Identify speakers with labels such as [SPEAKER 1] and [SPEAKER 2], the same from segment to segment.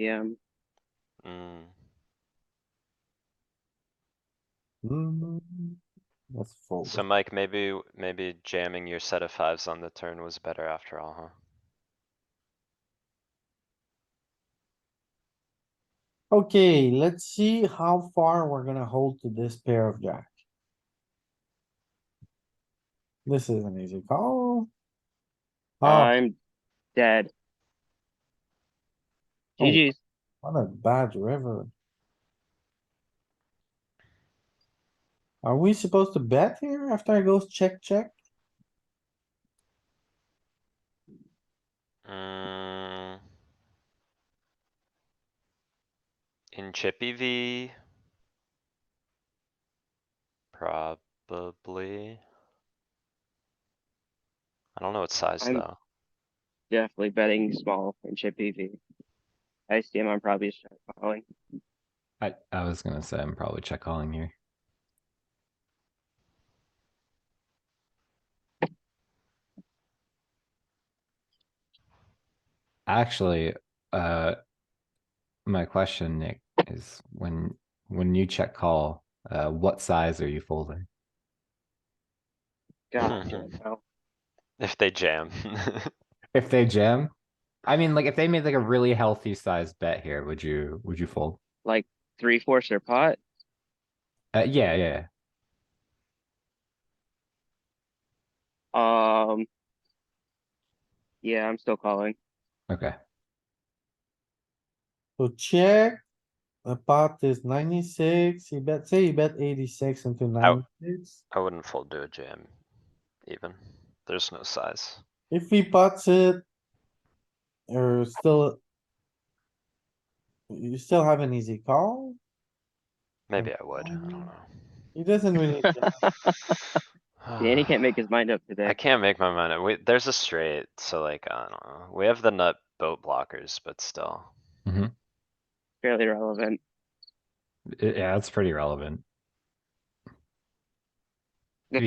[SPEAKER 1] PM.
[SPEAKER 2] Mm,
[SPEAKER 3] Mm, Let's fold.
[SPEAKER 2] So Mike, maybe, maybe jamming your set of fives on the turn was better after all, huh?
[SPEAKER 3] Okay, let's see how far we're gonna hold to this pair of jack. This is an easy call. Oh,
[SPEAKER 1] I'm dead.
[SPEAKER 3] Oh.
[SPEAKER 1] GG's.
[SPEAKER 3] what a bad river. Are we supposed to bet here after I goes check, check?
[SPEAKER 2] Mm. In Chippy V. Probably. I don't know what size
[SPEAKER 1] I'm-
[SPEAKER 2] though.
[SPEAKER 1] Definitely betting small and chip EV. ICM, I'm probably just calling.
[SPEAKER 4] I, I was gonna say I'm probably check calling here. Actually, uh, my question, Nick, is when when you check call, uh, what size are you folding?
[SPEAKER 1] God, damn, no.
[SPEAKER 2] If they jam.
[SPEAKER 4] If they jam, I mean, like if they made like a really healthy size bet here, would you would you fold?
[SPEAKER 1] three fourths their pot.
[SPEAKER 4] Uh, yeah, yeah, yeah.
[SPEAKER 1] Um. Yeah, I'm still calling.
[SPEAKER 4] Okay.
[SPEAKER 3] So check. The pot is ninety-six, he bet, say he bet eighty-six into ninety-six.
[SPEAKER 2] I wouldn't fold to a jam. Even. There's no size.
[SPEAKER 3] If he pots it. Or still. You still have an easy call.
[SPEAKER 2] Maybe I would. I
[SPEAKER 3] Um,
[SPEAKER 2] don't
[SPEAKER 3] He doesn't really,
[SPEAKER 2] know.
[SPEAKER 1] Danny can't make his mind up
[SPEAKER 2] I
[SPEAKER 1] today.
[SPEAKER 2] can't make my mind up. We, there's a straight, so like, I don't know. We have the nut boat blockers, but still.
[SPEAKER 1] Fairly relevant.
[SPEAKER 4] It- yeah, that's pretty relevant. be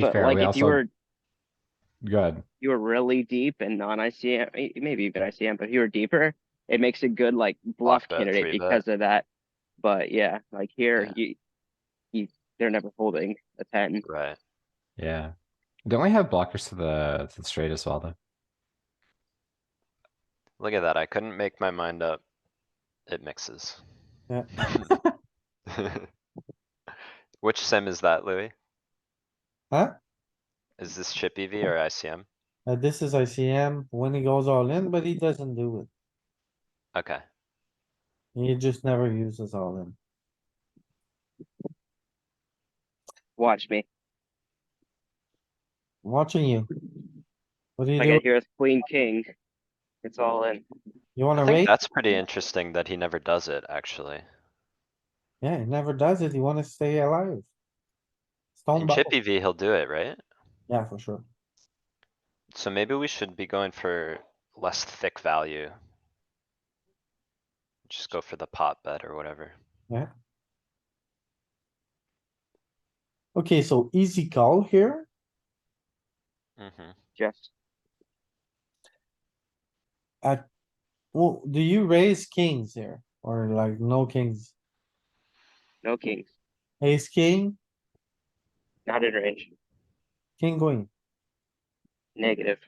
[SPEAKER 1] But
[SPEAKER 4] fair,
[SPEAKER 1] like
[SPEAKER 4] we
[SPEAKER 1] if you
[SPEAKER 4] also-
[SPEAKER 1] were,
[SPEAKER 4] Good.
[SPEAKER 1] you were really deep and non-ICM, eh, maybe even ICM, but if you were deeper, it makes a good like bluff
[SPEAKER 2] Block bet,
[SPEAKER 1] candidate
[SPEAKER 2] three bet.
[SPEAKER 1] because of that. But yeah, like here,
[SPEAKER 2] Yeah.
[SPEAKER 1] you, you, they're never holding a ten.
[SPEAKER 2] Right.
[SPEAKER 4] Yeah. Don't we have blockers to the to the straight as well though?
[SPEAKER 2] Look at that. I couldn't make my mind up. It mixes.
[SPEAKER 3] Yeah.
[SPEAKER 2] Which sim is that, Louis?
[SPEAKER 3] huh?
[SPEAKER 2] Is this chip EV or ICM?
[SPEAKER 3] Uh, this is ICM when he goes all in, but he doesn't do it.
[SPEAKER 2] Okay,
[SPEAKER 3] He just never uses all in.
[SPEAKER 1] Watch me.
[SPEAKER 3] Watching you. What do you
[SPEAKER 1] I get
[SPEAKER 3] do?
[SPEAKER 1] here with queen, king. It's all in.
[SPEAKER 3] You
[SPEAKER 2] I
[SPEAKER 3] wanna
[SPEAKER 2] think
[SPEAKER 3] raise?
[SPEAKER 2] that's pretty interesting that he never does it, actually.
[SPEAKER 3] Yeah, he never does it. You wanna stay alive. Stone
[SPEAKER 2] In chip
[SPEAKER 3] buckle.
[SPEAKER 2] EV, he'll do it, right?
[SPEAKER 3] Yeah, for sure.
[SPEAKER 2] So maybe we should be going for less thick value. Just go for the pot bet or whatever.
[SPEAKER 3] Okay, so easy call here.
[SPEAKER 2] hmm
[SPEAKER 1] Just
[SPEAKER 3] Well, do you raise kings here or like no kings?
[SPEAKER 1] no kings,
[SPEAKER 3] Ace, king,
[SPEAKER 1] not in range.
[SPEAKER 3] king, queen.
[SPEAKER 1] Negative.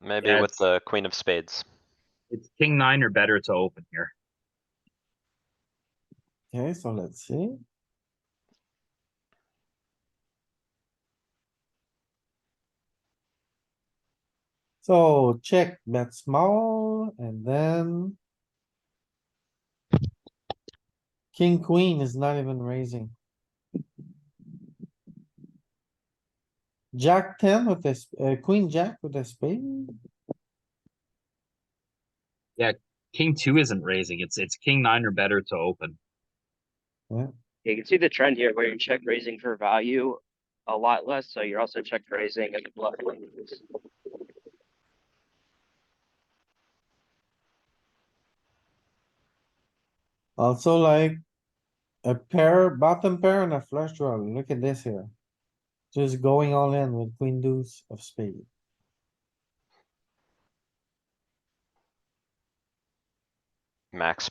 [SPEAKER 2] Maybe
[SPEAKER 5] Yeah,
[SPEAKER 2] with
[SPEAKER 5] it's-
[SPEAKER 2] the queen of spades.
[SPEAKER 5] It's king nine or better to open here.
[SPEAKER 3] Okay, so let's see. So check bet small and then. King, queen is not even raising. Jack ten with this, uh, queen, jack with a spade.
[SPEAKER 5] King two isn't raising. It's it's king nine or better to open.
[SPEAKER 1] You can see the trend here where you're check raising for value a lot less, so you're also check raising at the bluff. levels.
[SPEAKER 3] Also like a pair, bottom pair and a flush draw. Look at this here. Just going all in with queen deuce of spade.
[SPEAKER 2] max